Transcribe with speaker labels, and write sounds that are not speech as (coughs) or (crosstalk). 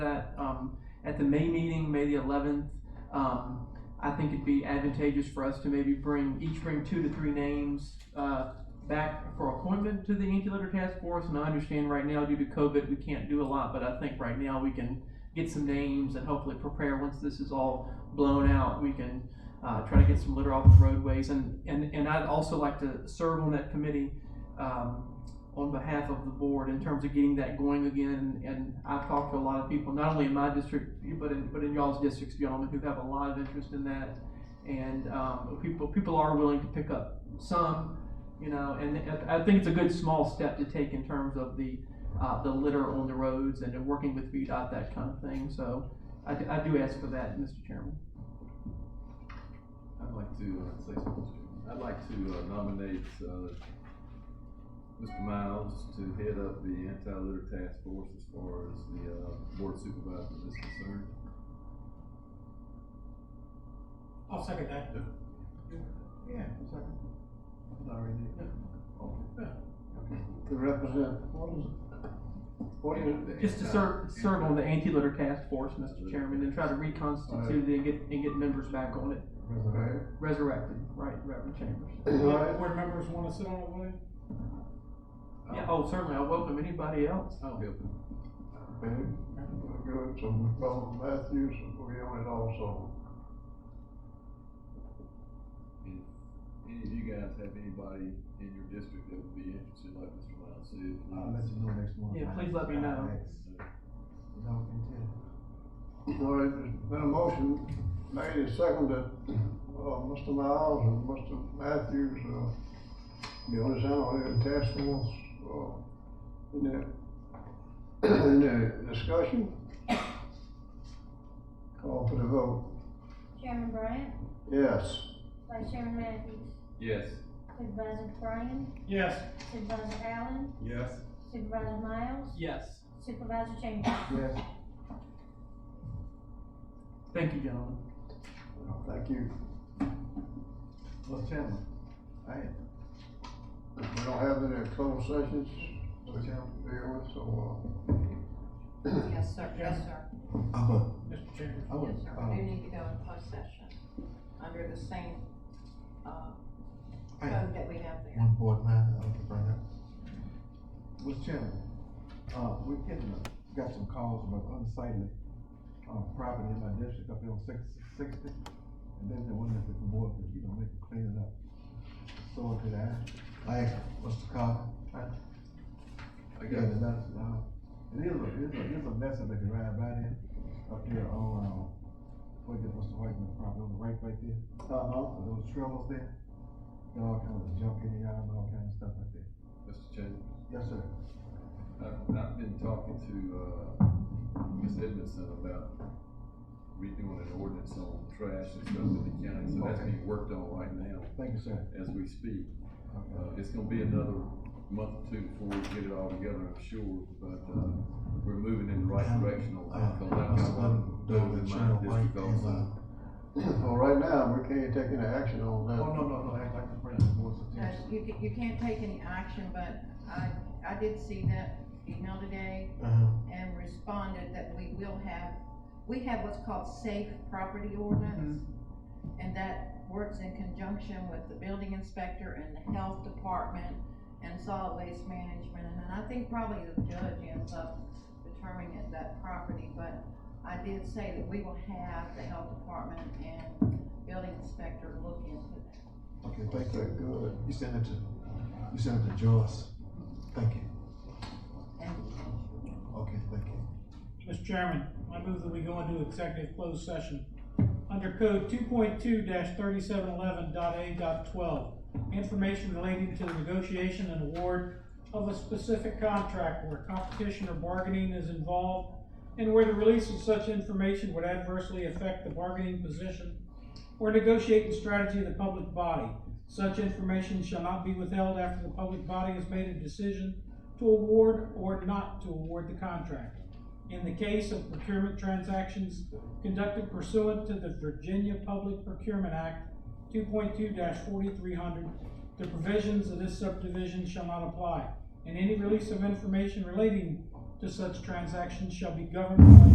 Speaker 1: that um, at the May meeting, May the eleventh, um, I think it'd be advantageous for us to maybe bring, each bring two to three names, uh, back for appointment to the Incubator Task Force, and I understand right now due to COVID, we can't do a lot, but I think right now we can get some names and hopefully prepare, once this is all blown out, we can, uh, try to get some litter off the roadways, and, and, and I'd also like to serve on that committee, um, on behalf of the board in terms of getting that going again. And I've talked to a lot of people, not only in my district, but in, but in y'all's districts, gentlemen, who have a lot of interest in that. And, um, people, people are willing to pick up some, you know, and I, I think it's a good small step to take in terms of the, uh, the litter on the roads and working with VDOT, that kind of thing. So I, do- I do ask for that, Mr. Chairman.
Speaker 2: I'd like to uh, say something. Mr. Chairman. I'd like to uh, nominate, uh, Mr. Miles to head up the anti-litter task force as far as the, uh, board supervisor is concerned.
Speaker 3: I'll second that.
Speaker 4: Yeah, it's like, it's already there. To represent, what is it? What is it?
Speaker 1: Just to serve, serve on the anti-litter task force, Mr. Chairman, and try to reconstitute it and get, and get members back on it.
Speaker 4: Okay.
Speaker 1: Resurrected, right, Reverend Chambers.
Speaker 4: Alright.
Speaker 3: Board members wanna sit on it, will they?
Speaker 1: Yeah, oh, certainly, I welcome anybody else.
Speaker 2: I'll help him.
Speaker 4: Okay. We'll Go to Colin Matthews, will be on it also.
Speaker 2: Any of you guys have anybody in your district that would be interested, like Mr. Miles said?
Speaker 3: Uh,
Speaker 5: I'll let you know next month.
Speaker 1: Yeah, please let me know.
Speaker 5: Don't contend.
Speaker 4: All right, there's been a motion made and seconded, uh, Mr. Miles and Mr. Matthews, uh, be on this analytical task force, uh, in the, in the discussion. Call for the vote,
Speaker 6: Chairman Bryant,
Speaker 4: yes.
Speaker 6: Vice Chairman Matthews,
Speaker 2: Yes.
Speaker 6: Supervisor Bryan,
Speaker 3: Yes.
Speaker 6: Supervisor Allen,
Speaker 2: Yes.
Speaker 6: Supervisor Miles,
Speaker 1: Yes.
Speaker 6: Supervisor Chambers.
Speaker 4: Yes.
Speaker 1: Thank you, gentlemen.
Speaker 5: Oh,
Speaker 4: Thank you.
Speaker 5: Mr. Chairman,
Speaker 4: We don't have any closed sessions to deal with, so,
Speaker 5: uh, (coughs)
Speaker 7: Yes, sir, yes, sir,
Speaker 5: I'm a,
Speaker 3: Mr. Chambers.
Speaker 5: Uh-huh. I would,
Speaker 7: yes, sir, we do
Speaker 5: uh,
Speaker 7: need to go in closed session under the same, uh,
Speaker 5: I
Speaker 7: code that we have there.
Speaker 5: one board matter I want to bring up. Mr. Chairman, uh, we getting, a- got some calls about unsightly, uh, property in my district up here on six, sixty. And then they wondered if the board could, you know, make it clean it up. So did I, I asked Mr. Carter,
Speaker 2: I
Speaker 5: Yeah,
Speaker 2: got
Speaker 5: the nuts, uh, it is a, it is a, it's a mess up at the ride by there, up there on, um, what is, what's the white man property, on the right right there,
Speaker 4: uh-huh.
Speaker 5: uh, those trailers there. Got all kinds of junk in the yard, and all kinds of stuff like that.
Speaker 2: Mr. Chambers.
Speaker 5: Yes, sir.
Speaker 2: I've, I've been talking to, uh, Ms. Edmondson about redoing an ordinance on trash and stuff in the county, so that's being worked on right now
Speaker 5: Thank you, sir.
Speaker 2: as we speak.
Speaker 5: Okay.
Speaker 2: Uh, it's gonna be another month or two before we get it all together, I'm sure, but, uh, we're moving in the right direction on that.
Speaker 5: Uh,
Speaker 2: So that's
Speaker 5: Mr. Button,
Speaker 2: those
Speaker 5: Doug,
Speaker 2: in my
Speaker 5: Cheryl White,
Speaker 2: district
Speaker 5: and,
Speaker 2: also.
Speaker 5: uh,
Speaker 4: Well, right now, we can't take any action on that.
Speaker 5: Oh, no, no, no, I'd like to bring the board's
Speaker 7: Uh,
Speaker 5: attention.
Speaker 7: you, ca- you can't take any action, but I, I did see that email today
Speaker 5: Uh-huh.
Speaker 7: and responded that we will have, we have what's called safe property ordinance. And that works in conjunction with the building inspector and the health department and solid waste management. And then I think probably the judge ends up determining it, that property, but I did say that we will have the health department and building inspector look into that.
Speaker 5: Okay, thank
Speaker 4: Okay,
Speaker 5: you.
Speaker 4: good.
Speaker 5: You send it to, you send it to Joyce. Thank you.
Speaker 7: And
Speaker 5: Okay, thank you.
Speaker 3: Mr. Chairman, I move that we go into executive closed session under code two point two thirty-seven eleven dot A dot twelve. Information relating to the negotiation and award of a specific contract where competition or bargaining is involved and where the release of such information would adversely affect the bargaining position or negotiating strategy of the public body. Such information shall not be withheld after the public body has made a decision to award or not to award the contract. In the case of procurement transactions conducted pursuant to the Virginia Public Procurement Act two point two forty-three hundred, the provisions of this subdivision shall not apply, and any release of information relating to such transactions shall be governed by